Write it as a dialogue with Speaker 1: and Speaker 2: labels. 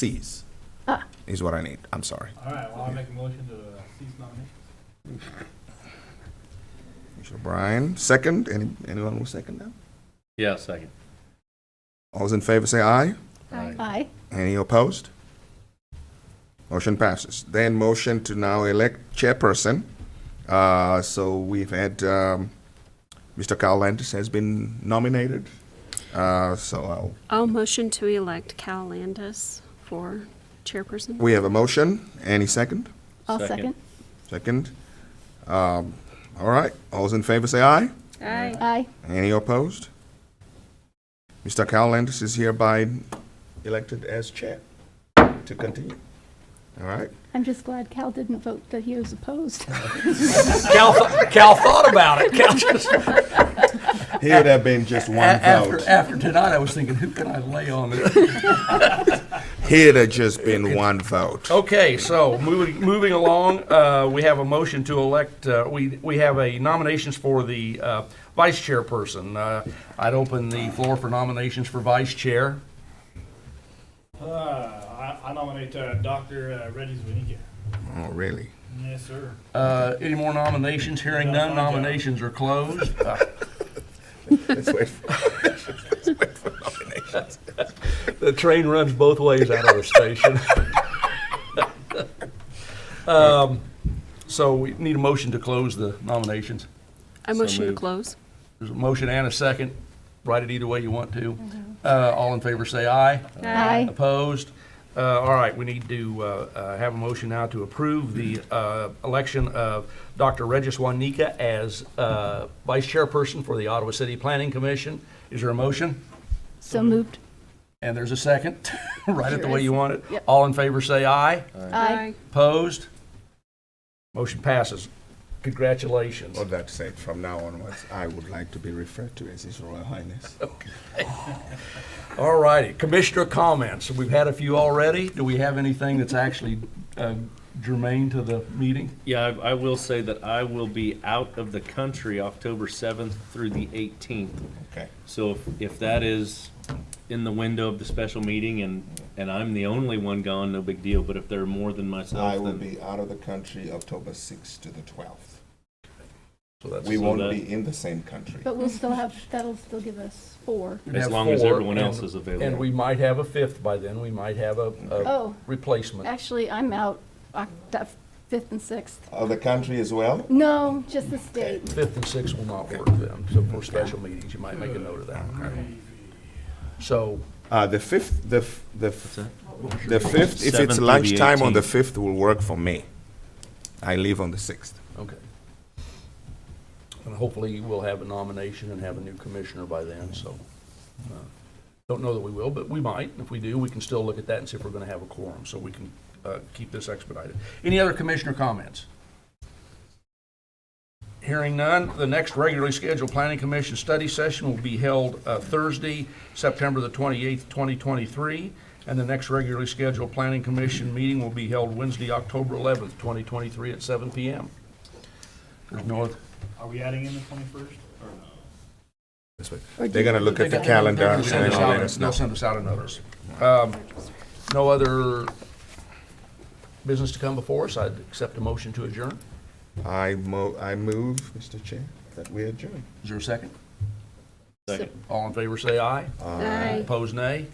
Speaker 1: C's
Speaker 2: Ah.
Speaker 1: is what I need. I'm sorry.
Speaker 3: All right, well, I'll make a motion to uh, cease nominations.
Speaker 1: Commissioner Bryan, second. Any, anyone will second that?
Speaker 4: Yeah, second.
Speaker 1: All those in favor say aye.
Speaker 2: Aye.
Speaker 1: Any opposed? Motion passes. Then motion to now elect chairperson. Uh, so we've had, um, Mr. Carl Landis has been nominated. Uh, so I'll,
Speaker 5: I'll motion to elect Cal Landis for chairperson.
Speaker 1: we have a motion. Any second?
Speaker 2: I'll second.
Speaker 4: Second.
Speaker 1: Second. Um, all right. All those in favor say aye.
Speaker 5: Aye.
Speaker 2: Aye.
Speaker 1: Any opposed? Mr. Carl Landis is hereby elected as chair to continue. All right.
Speaker 2: I'm just glad Cal didn't vote that he was opposed.
Speaker 4: Cal, Cal thought about it. Cal just,
Speaker 1: He would have been just one
Speaker 4: after,
Speaker 1: vote.
Speaker 4: after tonight, I was thinking, who can I lay on this?
Speaker 1: He'd have just been one vote.
Speaker 6: Okay, so moving, moving along, uh, we have a motion to elect, uh, we, we have a nominations for the, uh, vice chairperson. Uh, I'd open the floor for nominations for vice chair.
Speaker 3: Uh, I I nominate uh, Dr. uh, Reggie Zwinicki.
Speaker 1: Oh, really?
Speaker 3: Yes, sir.
Speaker 6: Uh, any more nominations? Hearing none,
Speaker 3: No, I'm done.
Speaker 6: nominations are closed. Uh,
Speaker 1: Let's wait for let's wait for nominations.
Speaker 4: The train runs both ways out of the station.
Speaker 6: Um, So we need a motion to close the nominations.
Speaker 5: I motion to
Speaker 4: moved.
Speaker 5: close.
Speaker 6: There's a motion and a second. Write it either way you want to. Uh, all in favor, say aye.
Speaker 2: Aye.
Speaker 6: Opposed? Uh, All right, we need to uh, uh, have a motion now to approve the uh, election of Dr. Regis Juanica as uh, Vice Chairperson for the Ottawa City Planning Commission. Is there a motion?
Speaker 2: So moved.
Speaker 6: And there's a second. Write it the way you want it.
Speaker 2: Yep.
Speaker 6: All in favor, say aye.
Speaker 2: Aye.
Speaker 6: Opposed? Motion passes. Congratulations.
Speaker 1: Well, that said, from now onwards, I would like to be referred to as His Royal Highness.
Speaker 6: All righty, Commissioner comments. We've had a few already. Do we have anything that's actually uh, germane to the meeting?
Speaker 4: Yeah, I, I will say that I will be out of the country October seventh through the eighteenth.
Speaker 1: Okay.
Speaker 4: So if, if that is in the window of the special meeting and, and I'm the only one gone, no big deal, but if there are more than
Speaker 1: I
Speaker 4: myself,
Speaker 1: will
Speaker 4: then.
Speaker 1: be out of the country October 6th to the 12th.
Speaker 6: So that's-
Speaker 1: We
Speaker 4: So
Speaker 1: won't
Speaker 4: that-
Speaker 1: be in the same country.
Speaker 2: But we'll still have, that'll still give us four.
Speaker 6: We'd
Speaker 4: As
Speaker 6: have
Speaker 4: long as
Speaker 6: four,
Speaker 4: everyone else
Speaker 6: and-
Speaker 4: is available.
Speaker 6: And we might have a fifth by then, we might have a, a
Speaker 2: Oh,
Speaker 6: replacement.
Speaker 2: actually, I'm out, Oct- fifth and sixth.
Speaker 1: Of the country as well?
Speaker 2: No, just the state.
Speaker 6: Fifth and sixth will not work then, so for special meetings, you might make a note of that. So,
Speaker 1: Uh, the 5th, the, f- the, f- the 5th, if
Speaker 4: Seventh
Speaker 1: it's
Speaker 4: through the
Speaker 1: lunchtime on the
Speaker 4: 18th.
Speaker 1: 5th will work for me. I leave on the 6th.
Speaker 6: okay. And hopefully we'll have a nomination and have a new commissioner by then, so. uh, Don't know that we will, but we might. If we do, we can still look at that and see if we're gonna have a quorum, so we can, uh, keep this expedited. Any other commissioner comments? Hearing none, the next regularly scheduled Planning Commission study session will be held uh, Thursday, September the 28th, 2023, and the next regularly scheduled Planning Commission meeting will be held Wednesday, October 11th, 2023, at 7 PM. There's no oth-
Speaker 3: Are we adding in the 21st or no?
Speaker 1: This way. They're gonna look at the calendar and
Speaker 6: They'll send
Speaker 1: then
Speaker 6: us
Speaker 1: they'll
Speaker 6: out-
Speaker 1: let us know.
Speaker 6: They'll send us out a notice. Um, No other business to come before us, I'd accept a motion to adjourn.
Speaker 1: I mo, I move, Mr. Chair, that we adjourn.
Speaker 6: Is there a second?
Speaker 4: Second.
Speaker 6: All in favor, say aye.
Speaker 5: Aye.
Speaker 6: Opposed, nay.